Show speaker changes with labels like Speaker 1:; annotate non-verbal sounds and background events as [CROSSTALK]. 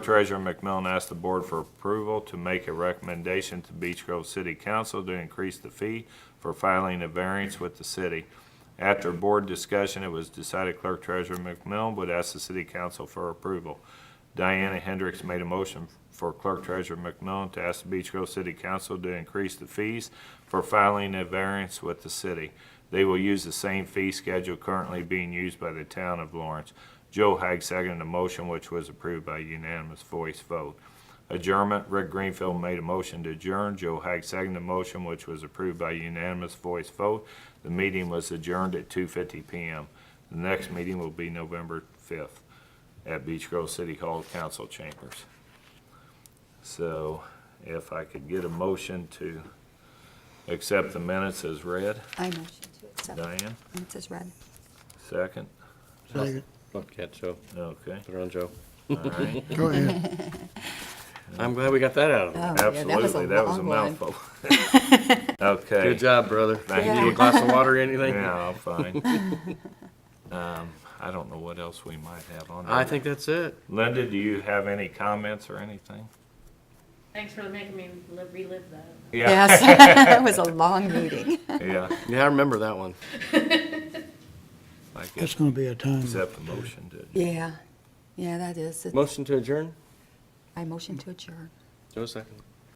Speaker 1: Treasurer McMillan asked the board for approval to make a recommendation to Beech Grove City Council to increase the fee for filing a variance with the city. After board discussion, it was decided Clerk Treasurer McMillan would ask the city council for approval. Diana Hendricks made a motion for Clerk Treasurer McMillan to ask the Beech Grove City Council to increase the fees for filing a variance with the city. They will use the same fee schedule currently being used by the town of Lawrence. Joe Hag seconded the motion, which was approved by unanimous voice vote. Adjournment, Rick Greenfield made a motion to adjourn. Joe Hag seconded the motion, which was approved by unanimous voice vote. The meeting was adjourned at 2:50 PM. The next meeting will be November 5th at Beach Grove City Hall Council Chambers. So if I could get a motion to accept the minutes as read,
Speaker 2: I motion to accept.
Speaker 1: Diane,
Speaker 2: Minutes is read.
Speaker 1: Oh, second,
Speaker 3: Second.
Speaker 4: Look at Joe,
Speaker 1: okay,
Speaker 4: put her on Joe.
Speaker 1: all right.
Speaker 3: Go ahead.
Speaker 4: I'm glad we got that out of him.
Speaker 1: Absolutely, that was a mouthful. [LAUGHS] Okay.
Speaker 4: Good job, brother.
Speaker 1: Thank
Speaker 4: You
Speaker 1: you.
Speaker 4: need a glass of water or anything?
Speaker 1: Yeah, I'm fine. Um, I don't know what else we might have on there.
Speaker 4: I think that's it.
Speaker 1: Linda, do you have any comments or anything?
Speaker 5: Thanks for making me li- relive that.
Speaker 2: Yes, [LAUGHS] that was
Speaker 1: [LAUGHS]
Speaker 2: a long meeting.
Speaker 1: Yeah,
Speaker 4: Yeah, I remember that one.
Speaker 1: I
Speaker 3: That's
Speaker 1: guess,
Speaker 3: gonna be a time.
Speaker 1: accept the motion, did you?
Speaker 2: Yeah, yeah, that is. it.
Speaker 4: Motion to adjourn?
Speaker 2: I motion to adjourn.
Speaker 4: Joe second.